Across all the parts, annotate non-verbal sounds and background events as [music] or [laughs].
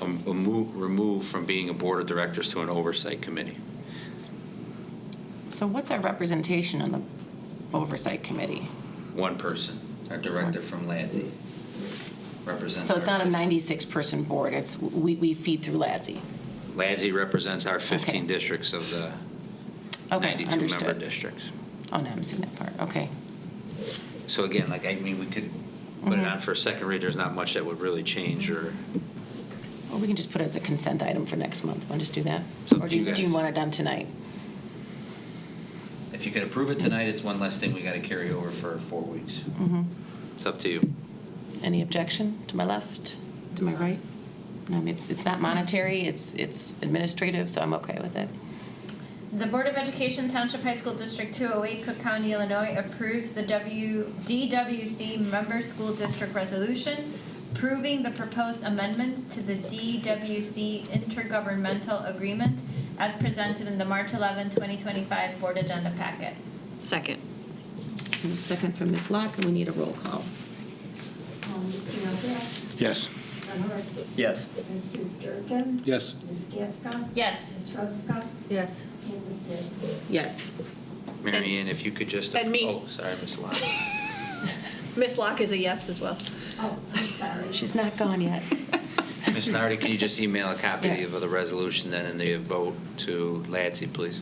a mo- removed from being a board of directors to an oversight committee. So what's our representation on the oversight committee? One person, our director from Lansing, represents. So it's our not a 15 96-person board, it's, we, we feed through LADSI. Lansing represents our 15 Okay. districts of the Okay, 92-member understood. districts. Oh, no, I haven't seen that part, okay. So again, like, I mean, we could put Mm-hmm. it on for a second read, there's not much that would really change or, Or we can just put it as a consent item for next month, want to just do that? It's up Or to do you you, do you guys. want it done tonight? if you could approve it tonight, it's one less thing we gotta carry over for four weeks. Mm-hmm. It's up to you. Any objection to my left, to my right? No, I mean, it's, it's not monetary, it's, it's administrative, so I'm okay with it. The Board of Education Township High School District 208, Cook County, Illinois approves the W, DWC Member School District Resolution approving the proposed amendments to the DWC Intergovernmental Agreement as presented in the March 11, 2025 Board Agenda Packet. Second. And a second from Ms. Locke, and we need a roll call. Um, Mr. Novak? Yes. Bernhardt? Yes. Mr. Durkin? Yes. Ms. Gasko? Yes. Ms. Ruska? Yes. And Ms. Zinn. Yes. Mary Ann, if you could just. And me. Oh, sorry, Ms. Lott. Miss Locke is a yes as well. Oh, I'm [laughs] sorry. She's not gone yet. [laughs] Ms. Nardi, can you just email a copy Yeah. of the resolution then and the vote to Lansing, please?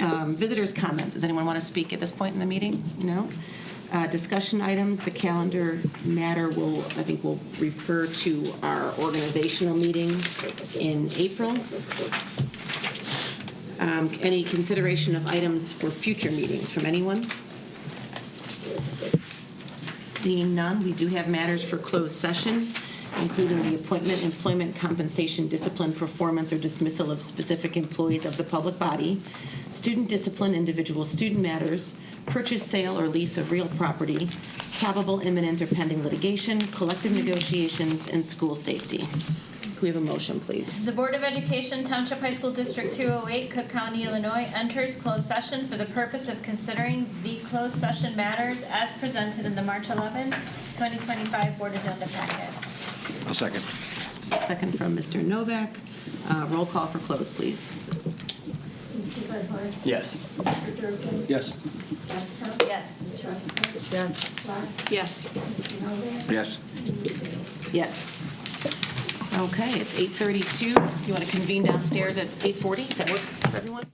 Um, Visitors' comments, does anyone want to speak at this point in the meeting? No? Uh, Discussion items, the calendar matter will, I think will refer to our organizational meeting in April. Um, Any consideration of items for future meetings from anyone? Seeing none, we do have matters for closed session, including the appointment, employment, compensation, discipline, performance, or dismissal of specific employees of the public body, student discipline, individual student matters, purchase, sale, or lease of real property, probable imminent or pending litigation, collective negotiations, and school safety. Can we have a motion, please? The Board of Education Township High School District 208, Cook County, Illinois enters closed session for the purpose of considering the closed session matters as presented in the March 11, 2025 Board Agenda Packet. I'll second. Second from Mr. Novak. Uh, Roll call for close, please. Mr. Bernhardt? Yes. Mr. Durkin? Yes. Ms. Gasko? Yes. Ms. Ruska? Yes. Ms. Locke? Yes. Mr. Novak? Yes. And Ms. Zinn. Yes. Okay, it's 8:32. You want to convene downstairs at 8:40? Does that work for everyone?